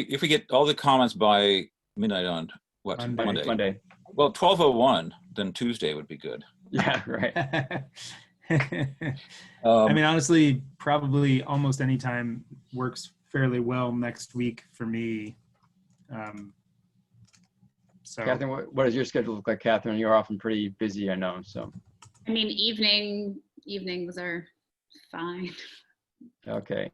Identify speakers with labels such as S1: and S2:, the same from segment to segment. S1: if we get all the comments by midnight on what
S2: Monday.
S1: Monday?
S3: Monday.
S1: Well, twelve oh one, then Tuesday would be good.
S3: Yeah, right.
S1: Um,
S2: I mean, honestly, probably almost any time works fairly well next week for me. Um, so
S3: Catherine, what, what does your schedule look like, Catherine? You're often pretty busy, I know, so,
S4: I mean, evening, evenings are fine.
S3: okay.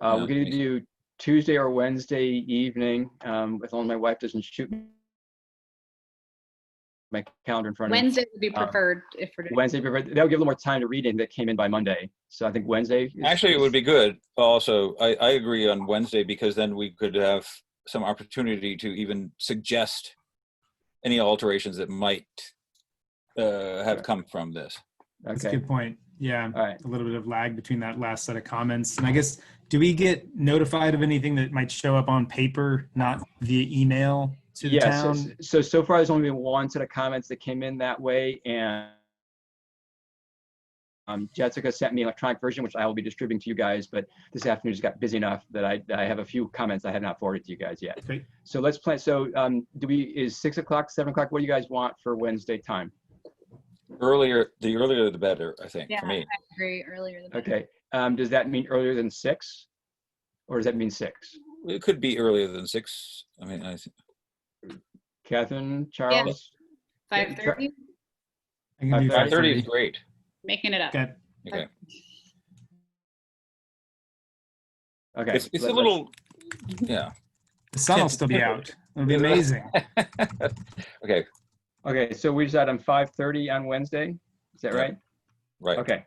S3: Uh, we're gonna
S1: Okay.
S3: do Tuesday or Wednesday evening, um, as long as my wife doesn't shoot me my calendar in front of me.
S4: Wednesday would be
S3: Um,
S4: preferred if we're doing.
S3: Wednesday, prefer- that'll give a little more time to read in that came in by Monday. So I think Wednesday. is-
S1: Actually, it would be good also. I, I agree on Wednesday because then we could have some opportunity to even suggest any alterations that might uh, have come from this.
S2: that's a
S3: Okay,
S2: good point. Yeah,
S3: all right.
S2: a little bit of lag between that last set of comments. And I guess, do we get notified of anything that might show up on paper, not via email to the
S3: Yeah, so,
S2: town?
S3: so, so far there's only been one set of comments that came in that way and um, Jessica sent me an electronic version, which I will be distributing to you guys, but this afternoon just got busy enough that I, that I have a few comments I have not forwarded to you guys yet.
S2: Great.
S3: So let's plan, so, um, do we, is six o'clock, seven o'clock, what do you guys want for Wednesday time?
S1: Earlier, the earlier the better, I think, for
S4: Yeah.
S1: me.
S4: Very earlier than that.
S3: Okay, um, does that mean earlier than six? Or does that mean six?
S1: It could be earlier than six. I mean, I, think-
S3: Catherine, Charles?
S4: Five thirty,
S2: I can do
S3: Five
S1: 5:30
S2: 5:30.
S1: is great.
S4: making it up.
S2: Okay.
S1: Okay.
S3: Okay.
S1: It's, it's a
S3: let- let's-
S1: little, yeah.
S2: The sun will still be out. It'll be amazing.
S1: Okay,
S3: Okay, so we decide on five thirty on Wednesday, is that
S1: Yeah.
S3: right?
S1: right.
S3: Okay.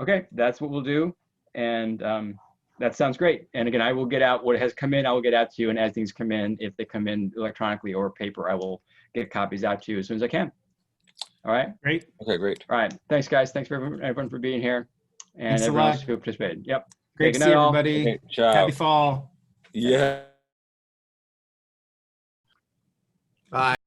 S3: Okay, that's what we'll do. And um, that sounds great. And again, I will get out what has come in, I will get out to you. And as things come in, if they come in electronically or paper, I will get copies out to you as soon as I can. All right,
S2: Great.
S1: Okay, great.
S3: all right. Thanks, guys. Thanks for everyone- everyone for being here and
S2: Thanks a
S3: everyone
S2: lot.
S3: else who participated. Yep.
S2: Great
S3: good
S2: to
S3: night,
S2: see
S3: all.
S2: everybody.
S1: Okay, ciao.
S2: Happy fall.
S1: Yeah.
S5: Bye.